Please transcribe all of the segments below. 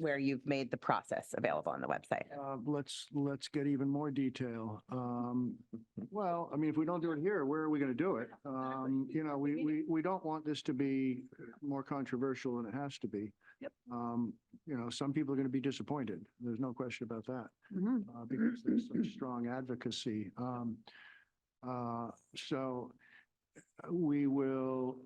where you've made the process available on the website. Uh, let's, let's get even more detail. Um, well, I mean, if we don't do it here, where are we going to do it? Um, you know, we, we, we don't want this to be more controversial than it has to be. Yep. Um, you know, some people are going to be disappointed. There's no question about that, Mhm. uh, because there's such strong advocacy. Um, uh, so we will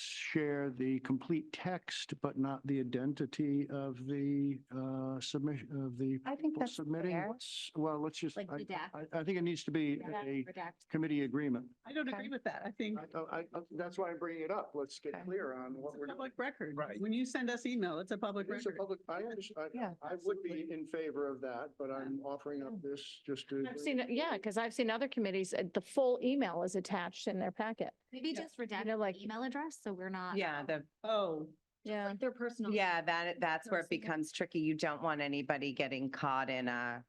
share the complete text, but not the identity of the, uh, submission, of the I think people that's submitting fair. what's, well, let's just, Like I- redact, I, I think it needs to be a redact. committee agreement. I don't Okay. agree with that. I think I- oh, I, I, that's why I'm bringing it up. Let's get Okay. clear on it's what a we're. public record. Right. When you send us email, it's a public It is a record. public, I understand, Yeah, I would be in favor of that, but I'm offering up this just to. I've seen, it- yeah, because I've seen other committees, uh, the full email is attached in their packet. Maybe Yeah. just redact know, the like- email address, so we're not. Yeah, the, Oh, Yeah. Like their personal. yeah, that, that's where it Personal. becomes tricky. You don't want anybody getting caught in a,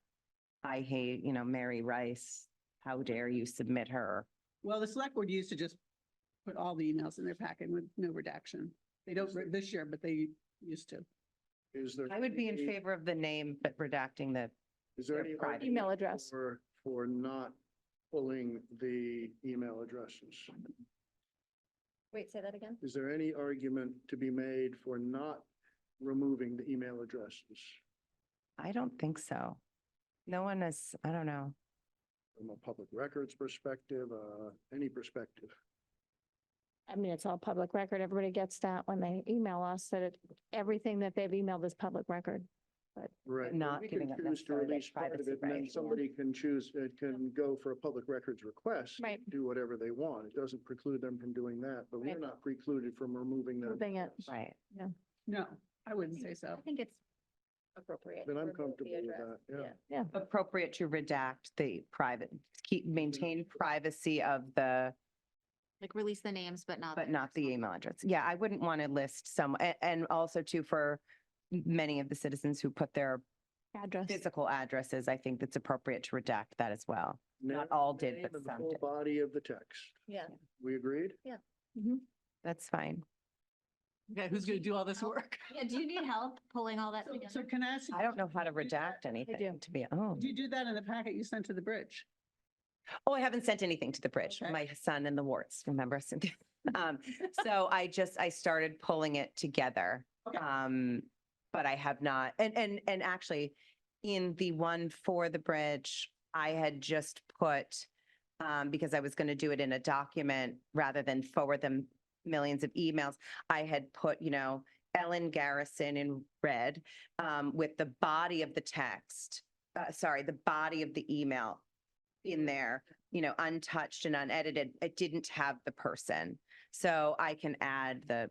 I hate, you know, Mary Rice. How dare you submit her? well, the select board used to just put all the emails in their packet with no redaction. They don't re- this year, but they used to. Is there? I would be in any- favor of the name, but redacting the, Is there their any? private argument email address. For, for not pulling the email addresses? Wait, say that again? Is there any argument to be made for not removing the email addresses I don't think so. No one is, I don't know. from a public records perspective, uh, any perspective? I mean, it's all public record. Everybody gets that when they email us that it, everything that they've emailed is public record. Right. but not we can giving up choose to necessarily that release part of privacy it, and then right. Somebody can choose, it can go for a public records request. Right. Do whatever they want. It doesn't preclude them from doing that, but we're Right. not precluded from removing them. Moving it. Right. No, I wouldn't say I so. think it's appropriate. Then to I'm remove the comfortable with address. that, yeah. Yeah. Appropriate to redact the private, keep, maintain privacy of the Like release the names, but not. But their not the personal- email address. Yeah, I wouldn't want to list some, a- and also too, for m- many of the citizens who put their Address. physical addresses, I think that's appropriate to redact that as well. Not Now, all did, name but and the some full did. Body of the text. Yeah. We agreed? That's fine. Okay, who's going to do all this work? Yeah, do you need help pulling all that So- So together? can I ask? I don't know how to Did you do that- redact anything, do. to be, oh. Did you do that in the packet you sent to the bridge? Oh, I haven't sent anything to the bridge. Okay. My son and the warts, remember? Cynthia? Um, So I just, I started pulling it together. Okay. Um, But I have not, and, and, and actually, in the one for the bridge, I had just put, um, because I was going to do it in a document rather than forward them millions of emails, I had put, you know, Ellen Garrison in red um, with the body of the text, uh, sorry, the body of the email in there, you know, untouched and unedited, it didn't have the person. So I can add the,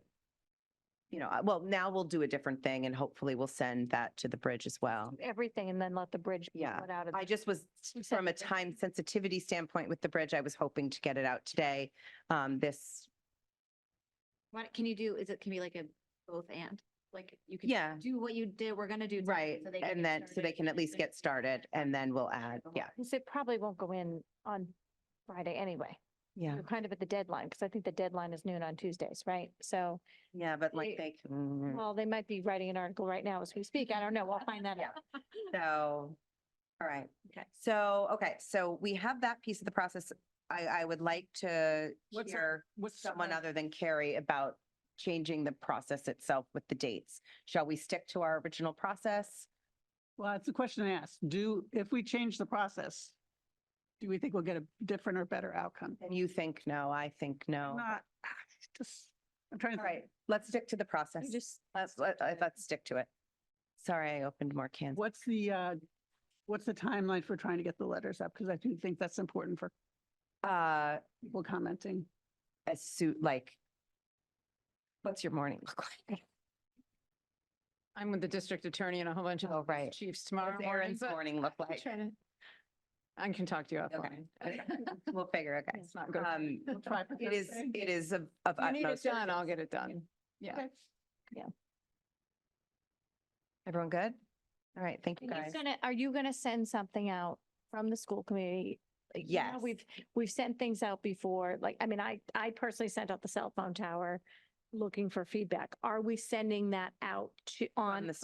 you know, uh, well, now we'll do a different thing and hopefully we'll send that to the bridge as well. Everything and then let the bridge. be Yeah. put out of I the- just was, You said from a that- time sensitivity standpoint with the bridge, I was hoping to get it out today. Um, this, What, can you do, is it, can be like a both and? Like you can. Yeah. Do what you did, we're gonna do. tonight, right, so they can and get then, so they started can at and least then- get started and then we'll add, yeah. Because it probably won't go in on Friday anyway. Yeah. We're kind of at the deadline because I think the deadline is noon on Tuesdays, right? So, Yeah, but like They- they, Hmm. Mm. well, they might be writing an article right now as we speak. I don't know. We'll find that out. So, all right. Okay. So, okay, so we have that piece of the process. I, I would like to What's the- hear What's the- someone other than Carrie about changing the process itself with the dates. Shall we stick to our original process? Well, it's a question I asked. Do, if we change the process, do we think we'll get a different or better outcome? And you think no, I think no. Not, ah, just, I'm trying to. All think. right, let's stick to the process. You just Let's, let- uh, let's stick to it. Sorry, I opened more cans. What's the, uh, what's the timeline for trying to get the letters up? Because I do think that's important for Uh, people commenting. a suit, like, what's your morning look like? I'm with the district attorney and a whole bunch of Oh, right. chiefs tomorrow What's morning. Erin's but morning look I'm like? trying to- I can talk to you Okay. offline. We'll figure, it out. It's not good. Um, We'll try for It is, Thursday. it is of of If you need it utmost. done, I'll urgency. get it done. Yeah. Okay. Everyone good? All right, thank you And guys. He's gonna, are you gonna send something out from the school committee? Like, you know, Yes. We've, we've sent things out before, like, I mean, I, I personally sent out the cell phone tower looking for feedback. Are we sending that out to, on the